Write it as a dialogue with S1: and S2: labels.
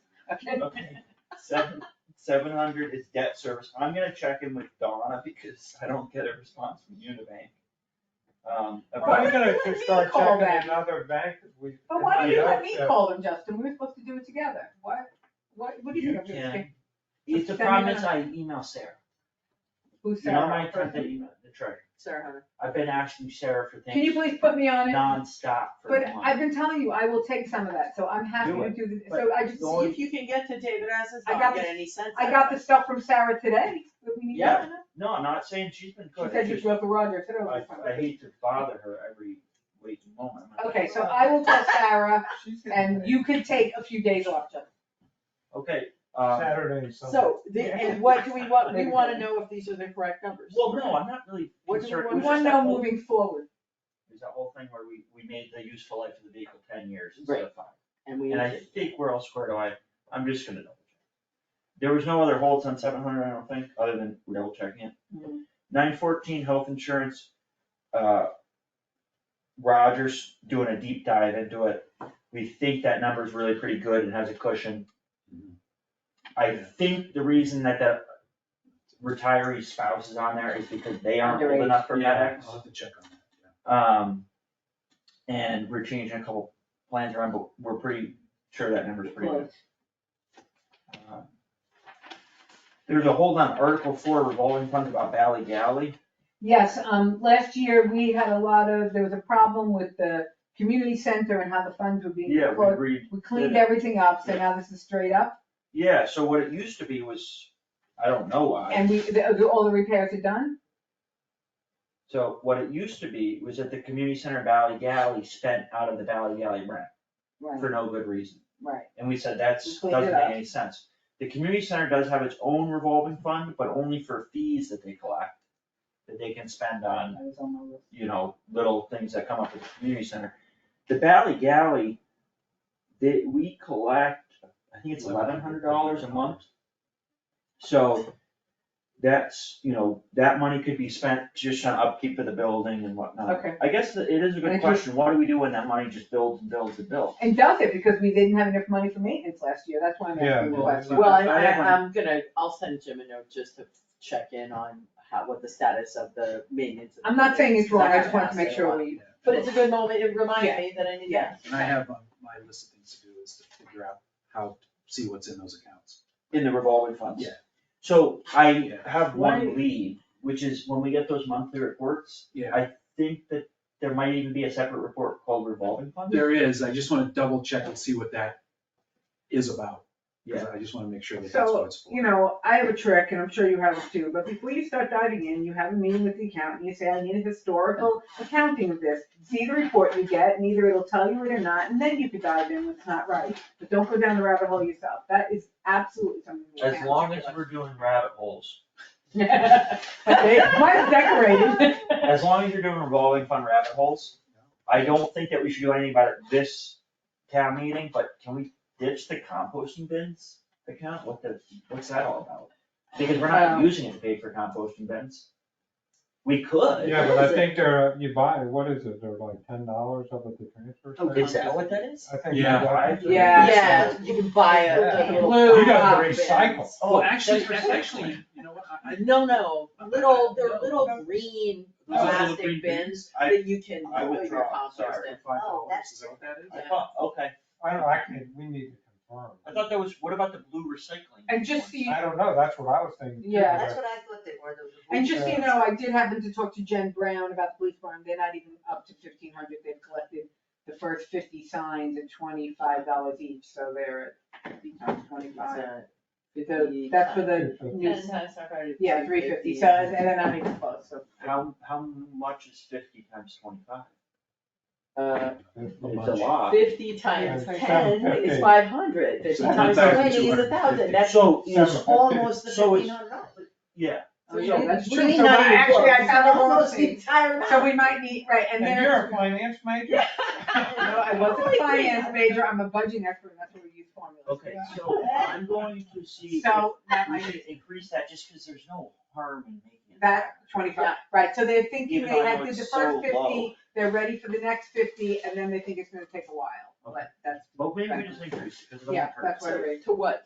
S1: Okay, seven, seven hundred is debt service, I'm gonna check in with Donna because I don't get a response from Unibank. Um,
S2: Are we
S1: about,
S2: gonna
S3: Why didn't
S2: start
S3: you call
S2: checking
S3: them?
S2: another bank? if we-
S3: But why did you let me
S2: Yeah.
S3: call them, Justin? We were supposed to do it together. What, what, what do you
S1: You
S3: think? of this
S1: can.
S3: thing?
S1: it's the
S3: Send
S1: problem
S3: them
S1: is I email Sarah,
S3: Who's
S1: you know, my
S3: Sarah?
S1: attempt to email the treasurer,
S3: Sarah Hunter.
S1: I've been asking Sarah for
S3: Can you
S1: things
S3: please put me on it?
S1: nonstop for
S3: But
S1: a month.
S3: I've been telling you, I will take some of that, so I'm happy
S1: Do
S3: to
S1: it.
S3: do this.
S1: But
S3: So I just,
S1: the only-
S4: If you can get to David Essen's,
S3: I
S4: I
S3: got
S4: don't get
S3: this-
S4: any sense
S3: I
S4: out
S3: got
S4: of
S3: the
S4: it.
S3: stuff from Sarah today, that we need. to-
S1: Yeah. No, I'm not saying she's been
S3: She
S1: good, I
S3: said you
S1: just,
S3: drove the Roger, I said,
S1: I,
S3: oh,
S1: I hate to bother her every waking moment. I'm like,
S3: Okay, so I will tell Sarah,
S2: She's gonna
S3: and
S2: pay.
S3: you can take a few days off, Justin.
S1: Okay, um,
S2: Saturday, and Sunday.
S4: So, the- and what do we want, we wanna know if these are the correct numbers.
S1: well, no, I'm not really
S4: What do we
S1: concerned, it
S3: We
S1: was
S3: wanna
S1: just
S3: know
S1: that whole,
S3: moving forward.
S1: it was that whole thing where we, we made the useful life of the vehicle ten years
S4: Right.
S1: instead of five.
S4: And we,
S1: And I think we're all squared away, I'm just gonna double check. There was no other holds on seven hundred, I don't think, other than we're double checking it.
S4: Mhm.
S1: Nine fourteen, health insurance, uh, Rogers doing a deep dive into it, we think that number's really pretty good and has a cushion. I think the reason that the retiree spouse is on there is because they aren't old
S3: Underage.
S1: enough for
S5: Yeah,
S1: FedEx.
S5: I'll have to check on that,
S1: Um, and we're changing a couple plans around, but we're pretty sure that number's pretty good. Um, There's a hold on Article Four revolving funds about Valley Galley.
S3: Yes, um, last year, we had a lot of, there was a problem with the community center and how the funds were being
S1: We
S3: closed.
S1: agreed.
S3: We cleaned everything up, so now this is straight up,
S1: Yeah, so what it used to be was, I don't know why,
S3: and we, the- all the repairs are done?
S1: so what it used to be was that the community center Valley Galley spent out of the Valley Galley rent
S3: Right,
S1: for no good reason.
S3: right.
S1: And we said that's,
S3: We cleaned
S1: doesn't
S3: it up.
S1: make any sense. The community center does have its own revolving fund, but only for fees that they collect, that they can spend on,
S3: That was on my list.
S1: you know, little things that come up at the community center. The Valley Galley, they, we collect, I think it's eleven hundred dollars a month. So that's, you know, that money could be spent just on upkeep of the building and whatnot.
S3: Okay.
S1: I guess that it is a
S3: I
S1: good
S3: just-
S1: question. What do we do when that money just builds and builds and builds?
S3: And does it, because we didn't have enough money for maintenance last year, that's why I'm
S2: Yeah,
S3: asking the
S2: well,
S3: question.
S4: well, I,
S1: I
S4: I,
S1: have one.
S4: I'm gonna, I'll send Jim a note just to check in on how, what the status of the maintenance. of the
S3: I'm not saying it's wrong, I just
S4: building
S3: wanted
S4: is.
S3: to make sure we,
S5: yeah.
S4: But it's a good moment, it
S3: Yeah.
S4: reminded me that I need
S3: Yeah.
S4: that.
S5: And I have on my list of things to do is to figure out how, see what's in those accounts.
S1: In the revolving funds?
S5: Yeah.
S1: So I have
S4: Why-
S1: one lead, which is when we get those monthly reports,
S5: Yeah,
S1: I think that there might even be a separate report called revolving funds.
S5: there is, I just wanna double check and see what that is about. 'cause I just wanna make sure that that's what it's for.
S3: you know, I have a trick, and I'm sure you have it too, but before you start diving in, you have a meeting with the accountant, you say, I need a historical accounting of this. See the report you get, and either it'll tell you it or not, and then you could dive in what's not right, but don't go down the rabbit hole yourself, that is absolutely something we
S1: As
S3: can't
S1: long
S3: do.
S1: as we're doing rabbit holes,
S3: Okay, mine's decorated.
S1: as long as you're doing revolving fund rabbit holes, I don't think that we should do anything about it this town meeting, but can we ditch the composting bins account? What the, what's that all about? Because we're not
S3: Um,
S1: using it to pay for composting bins. We could.
S2: Yeah, but I
S3: Is it-
S2: think they're, uh, you buy, what is it, they're like ten dollars up at the transfer
S1: Oh,
S2: station?
S1: Is that what that is?
S2: I think.
S5: Yeah.
S2: that's-
S3: Yeah.
S4: you can buy
S2: Yeah.
S4: little
S3: Blue
S2: You gotta
S4: box.
S2: recycle.
S5: Oh, actually,
S4: That's for
S5: actually, you know what, I, I.
S4: Uh, No, no, little, they're little
S5: No.
S4: green
S5: Those are little green
S4: plastic bins
S1: I-
S4: that you can
S1: I
S4: put your
S1: withdraw,
S4: compost
S1: sorry.
S4: in.
S5: Five
S4: Oh,
S5: dollars, is that what that is?
S1: I thought, okay,
S2: I don't, I can, we need to confirm.
S1: I thought that was, what about the blue recycling?
S3: And just so you
S2: I don't know, that's what I was thinking. too,
S3: Yeah.
S2: but-
S6: That's what I thought they were, those.
S3: And just so you know, I did happen to talk to Jen Brown about the police barn, they're not even up to fifteen hundred, they've collected the first fifty signs at twenty-five dollars each, so they're at fifty times twenty-five. So that's for the new,
S4: Ten times five hundred.
S3: yeah, three fifty, so, and they're not even close, so.
S1: How, how much is fifty times twenty-five?
S4: Uh,
S2: It's a
S1: It's a
S2: bunch.
S1: lot.
S4: fifty times
S2: Yeah,
S4: ten
S2: it's like
S4: is
S2: 750.
S4: five hundred. Fifty
S5: So
S4: times
S5: 1,000,
S4: twenty is a
S5: 250.
S4: thousand, that's
S1: So,
S2: Seven.
S4: almost the
S1: So it's-
S4: fifteen hundred dollars.
S1: yeah,
S3: So, yeah, that's true.
S4: Really
S3: So
S4: not
S3: I-
S4: even
S3: actually, I
S4: close.
S3: found out all
S4: Almost
S3: the
S4: the
S3: things.
S4: entire amount.
S3: So we might need, right, and
S2: And you're a
S3: there's,
S2: finance major?
S4: Yeah.
S3: no, I wasn't
S4: Holy
S3: a finance
S4: crap.
S3: major, I'm a budgeting expert, and that's what we use formulas. for.
S1: okay, so I'm going to see if
S3: So, that
S1: we
S3: might
S1: should increase that, just because there's no harm in making it.
S3: That twenty-five, right, so they're thinking
S1: Even
S3: they
S1: though I
S3: had
S1: know
S3: did the
S1: it's
S3: first
S1: so low.
S3: fifty, they're ready for the next fifty, and then they think it's gonna take a while,
S1: Okay.
S3: but that's,
S1: But maybe we just increase, it, because it doesn't
S3: yeah,
S1: hurt.
S3: that's what it is.
S4: To what?